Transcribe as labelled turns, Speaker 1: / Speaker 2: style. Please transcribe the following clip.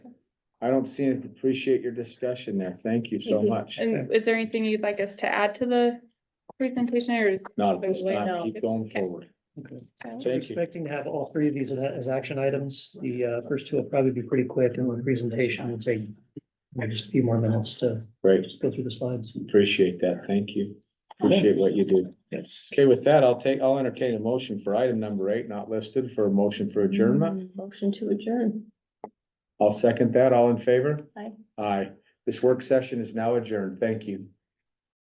Speaker 1: I don't see, it. appreciate your discussion there. Thank you so
Speaker 2: Thank you.
Speaker 1: much.
Speaker 3: And is there anything you'd like us to add to the presentation or? is-
Speaker 1: Not at this
Speaker 3: Wait,
Speaker 1: time,
Speaker 3: no.
Speaker 1: keep going
Speaker 3: Okay.
Speaker 1: forward.
Speaker 4: Okay.
Speaker 3: so-
Speaker 4: We're
Speaker 1: Thank you.
Speaker 4: Expecting to have all three of these as- as action items. The uh, first two will probably be pretty quick and the presentation will take uh, just a few more minutes to
Speaker 1: Great,
Speaker 4: just go through the slides.
Speaker 1: appreciate that. Thank you. Appreciate what you do.
Speaker 4: Yes.
Speaker 1: Okay, with that, I'll take, I'll entertain a motion for item number eight, not listed, for a motion for adjournment.
Speaker 2: Mm, Motion to adjourn.
Speaker 1: I'll second that. All in favor?
Speaker 2: Aye.
Speaker 1: Aye. This work session is now adjourned. Thank you.